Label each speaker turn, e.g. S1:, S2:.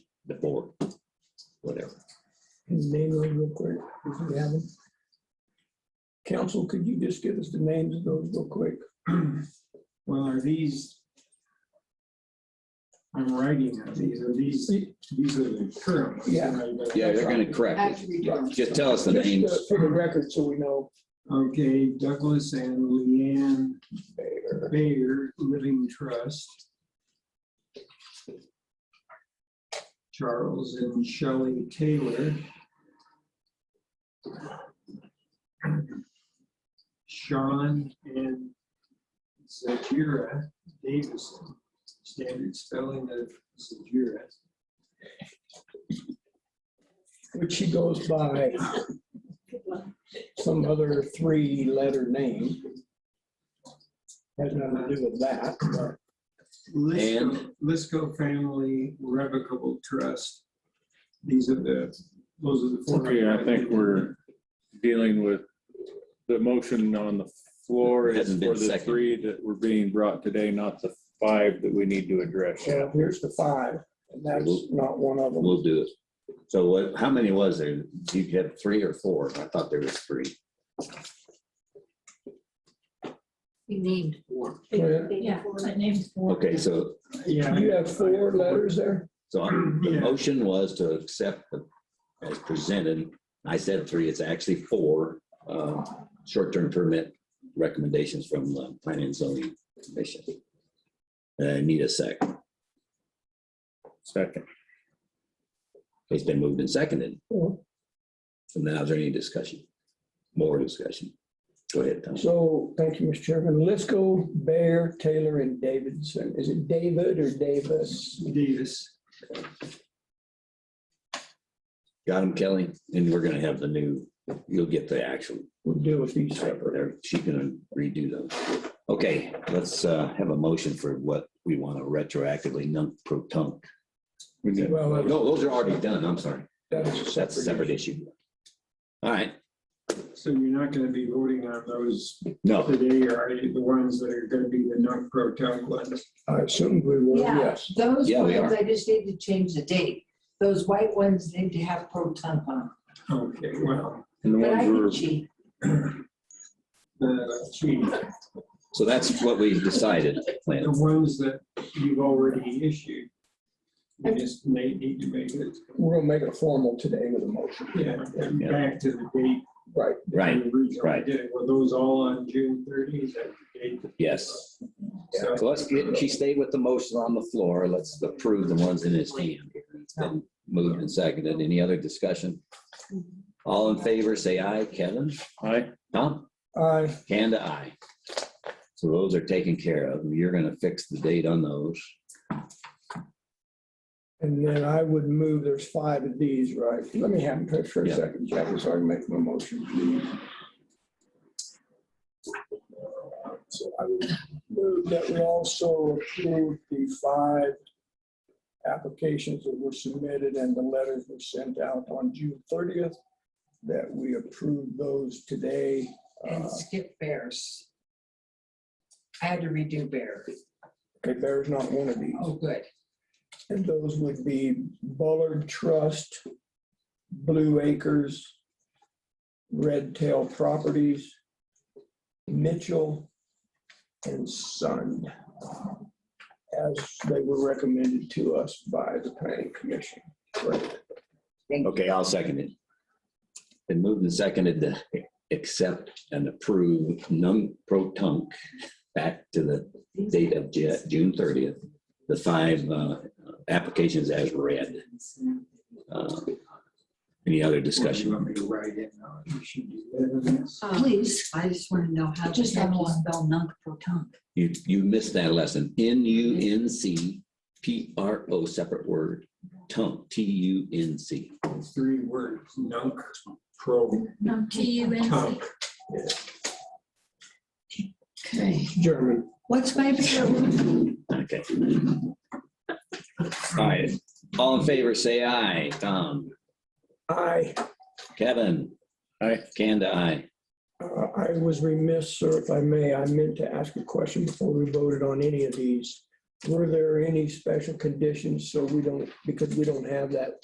S1: the board, whatever.
S2: Name those real quick, if you have them. Council, could you just give us the names of those real quick?
S3: Well, are these? I'm writing on these, are these, these are the current ones.
S2: Yeah.
S3: right? But-
S1: Yeah, they're gonna correct
S4: As
S1: it.
S4: we do.
S1: Just tell us the
S2: Just, uh,
S1: names.
S2: For the record, so we know.
S3: Okay, Douglas and Leanne Bayer Living Trust. Charles and Shelley Taylor. Sean and Zajira Davison, standard spelling of Zajira.
S2: Which she goes by some other three-letter name. Has nothing to do with that, but
S3: Lisco, Lisco Family Revocable Trust. These are the, those are the four.
S5: Okay, I think we're dealing with, the motion on the floor is
S1: Hasn't been
S5: for the
S1: seconded.
S5: three that were being brought today, not the five that we need to address.
S2: yeah, here's the five, and that's not one of them.
S1: We'll do it. So what, how many was there? You had three or four? I thought there was three.
S4: We named four.
S2: Well,
S6: Yeah, I named four.
S1: Okay, so,
S3: Yeah.
S2: You have four letters there?
S1: so I'm- the
S3: Yeah.
S1: motion was to accept the- as presented. I said three, it's actually four, uh, short-term permit recommendations from the planning and zoning commission. Uh, need a second.
S5: Second.
S1: It's been moved and seconded.
S2: Yeah.
S1: So now is there any discussion? More discussion? Go ahead, Tom.
S2: So, thank you, Mr. Chairman. Let's go Bear, Taylor, and Davidson. Is it David or Davis?
S3: Davis.
S1: Got him, Kelly, and we're gonna have the new, you'll get the actual
S2: We'll deal with these
S1: type
S2: separate.
S1: there. She's gonna redo those. Okay, let's uh, have a motion for what we want to retroactively non pro tunc.
S5: We need- uh,
S1: No,
S2: Well,
S1: those are already done. I'm sorry.
S2: that's
S1: That's a separate issue. All right,
S3: So you're not going to be voting on those
S1: no,
S3: today, are you? The ones that are going to be the non-pro town ones?
S2: I assumed we were,
S4: Yeah.
S2: yes.
S4: Those
S1: Yeah, we
S4: ones, I just need to change the date. Those white ones need to have pro temp on.
S3: Okay, well,
S5: And the
S4: But I can
S5: ones we're,
S4: cheat.
S3: the, gee,
S1: so that's what we decided. Lance.
S3: the ones that you've already issued. You just may need to make it,
S2: We're gonna make it formal today with a motion.
S3: yeah, back to the date.
S2: Right.
S3: that we
S1: Right,
S3: originally
S1: right.
S3: did. Were those all on June 30th? That date?
S1: Yes.
S3: So-
S1: So let's get, she stayed with the motion on the floor. Let's approve the ones in his hand. It's been moved and seconded. Any other discussion? All in favor, say aye. Kevin?
S5: I,
S1: Tom?
S2: I,
S1: Kanda, aye. So those are taken care of. You're gonna fix the date on those.
S2: and then I would move, there's five of these, right? Let me have them for a
S1: Yeah.
S2: second, Jackie, so I can make my motion. So I would move that we also approve the five applications that were submitted and the letters were sent out on June thirtieth, that we approve those today. Uh,
S4: And skip bears. I had to redo bear.
S2: Okay, there's not one of these.
S4: Oh, good.
S2: And those would be Bullard Trust, Blue Acres, Red Tail Properties, Mitchell, and Sun, as they were recommended to us by the planning commission. Correct.
S1: Okay, I'll second it. Been moved and seconded to accept and approve num pro tunc back to the date of Ju- June thirtieth. The five uh, applications as read. Uh, Any other
S3: You
S1: discussion?
S3: want me to write it now? You should do that.
S4: Please, Um, I just want to know how to
S6: Just have one.
S4: spell non-proton.
S1: You, you missed that lesson. N U N C P R O, separate word, tunc, T U N C.
S3: Three words, nunk, pro,
S6: No, Um, T U N C.
S3: tunk.
S4: Okay.
S2: German.
S4: What's my favorite?
S1: Okay. All right, all in favor, say aye. Tom,
S2: I,
S1: Kevin,
S5: I,
S1: Kanda, aye.
S2: uh, I was remiss, sir, if I may, I meant to ask a question before we voted on any of these. Were there any special conditions so we don't, because we don't have that